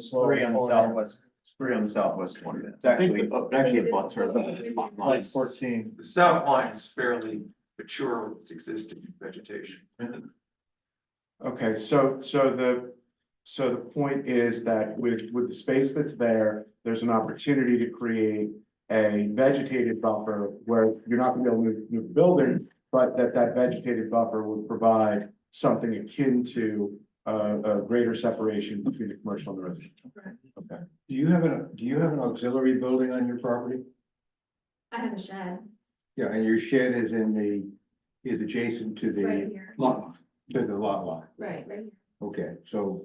Three on the southwest, Three on the southwest corner. It's I think actually, oh, actually a bus or a. like fourteen. The south line is fairly mature with its existing vegetation. Okay, so, so the, so the point is that with, with the space that's there, there's an opportunity to create a vegetated buffer where you're not gonna be able to move, move the building, but that that vegetated buffer would provide something akin to uh, a greater separation between the commercial and the residential. Okay. Do you have an, do you have an auxiliary building on your property? I have a shed Yeah, and your shed is in the, is adjacent to right the here, lot, to the lot line. right, right. here. Okay, so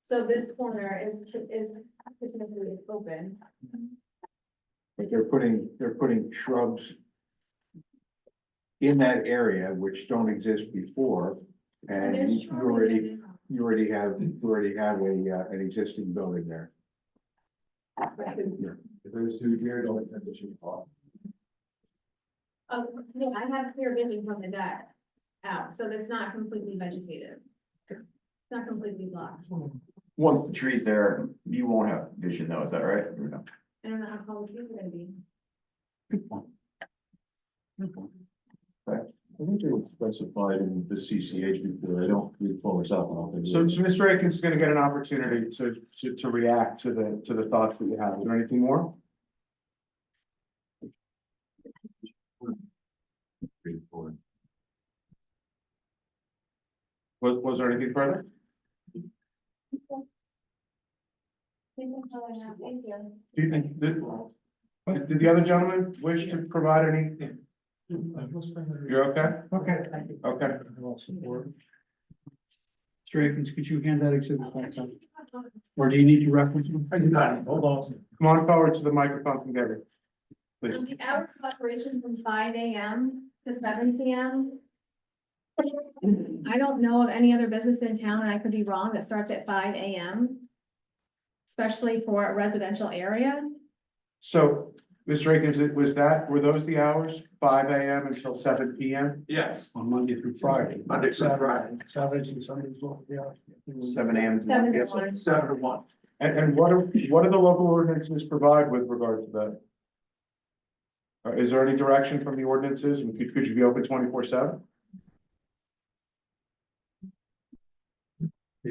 So this corner is, is potentially open. But they're putting, they're putting shrubs. In that area which don't exist before, and There's you shrubbery already, there now. you already have, you already have a, uh, an existing building there. Right. Those two here don't intend to shoot off. Oh, no, I have clear vision from the deck out, so that's not completely vegetative. It's not completely blocked. Once the tree's there, you won't have vision though, is that right? Or no? I don't know how tall the trees are gonna be. I think it was specified in the CCH before, I don't recall exactly. how they So, were. so Mr. Akins is gonna get an opportunity to, to, to react to the, to the thoughts that you have. Is there anything more? Three, four. Was, was there anything further? Thank you for calling out. Thank you. Do you think, did, did the other gentleman wish to provide any? You're okay? Okay. Okay. Mr. Akins, could you hand that exhibit back up? Or do you need to reference them? I do not, hold on. Come on forward to the microphone from Debbie. Um, The hours of operation from five AM to seven PM. I don't know of any other business in town, and I could be wrong, that starts at five AM. Especially for a residential area. So, Mr. Akins, it was that, were those the hours, five AM until seven PM? Yes, On Monday through Friday. Monday through Friday. Saturdays and Sundays, well, yeah. Seven AM. to Seven 1 to PM. one. seven to one. And, and what are, what do the local ordinances provide with regard to that? Or is there any direction from the ordinances, and could, could you be open twenty-four seven?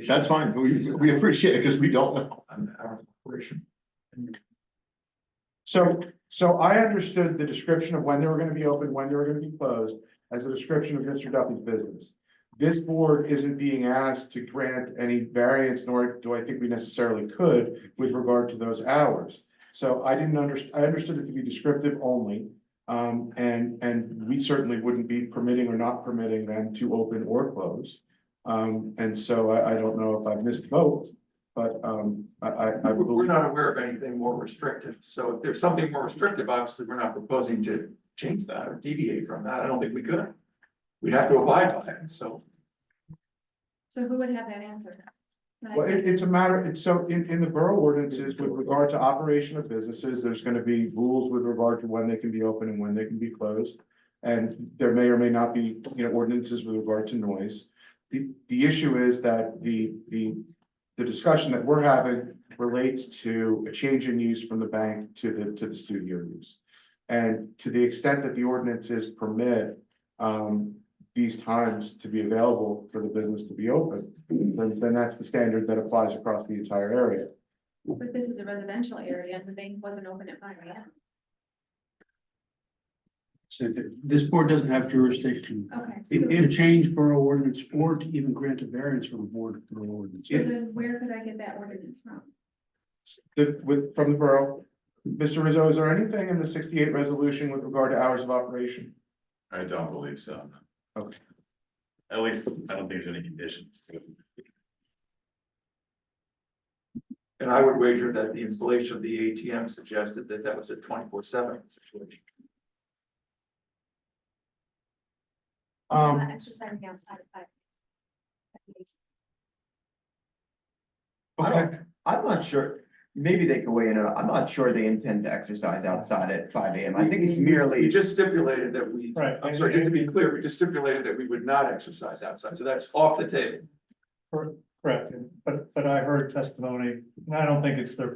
That's fine, we, we appreciate it, because we don't know. An hour of operation. So, so I understood the description of when they were gonna be open, when they were gonna be closed, as a description of Mr. Duffy's business. This board isn't being asked to grant any variance, nor do I think we necessarily could with regard to those hours. So I didn't underst- I understood it to be descriptive only. Um, and, and we certainly wouldn't be permitting or not permitting them to open or close. Um, and so I, I don't know if I've missed both, but, um, I, I, I We're we're believe. not aware of anything more restrictive, so if there's something more restrictive, obviously, we're not proposing to change that or deviate from that, I don't think we could. We'd have to abide by it, so. So who would have that answer? Not Well, it, exactly. it's a matter, it's so, in, in the borough ordinances with regard to operation of businesses, there's gonna be rules with regard to when they can be open and when they can be closed. And there may or may not be, you know, ordinances with regard to noise. The, the issue is that the, the, the discussion that we're having relates to a change in use from the bank to the, to the studio use. And to the extent that the ordinances permit, um, these times to be available for the business to be open, then, then that's the standard that applies across the entire area. But this is a residential area, and the bank wasn't open at five AM. So th- this board doesn't have jurisdiction Okay. so- to change borough ordinance or to even grant a variance from a board of borough ordinance. so Then where could I get that ordinance from? The, with, from the borough, Mr. Rizzo, is there anything in the sixty-eight resolution with regard to hours of operation? I don't believe so. no. Okay. At least, I don't think there's any conditions to it. And I would wager that the installation of the ATM suggested that that was a twenty-four seven situation. Um, Not Exercising outside of five. I okay, don't- I'm not sure, maybe they can weigh in, on it. I'm not sure they intend to exercise outside at five AM, I think it's We merely, just stipulated that we. Right. I'm sorry, just to be clear, we just stipulated that we would not exercise outside, so that's off the table. Correct, but, but I heard testimony, and I don't think it's their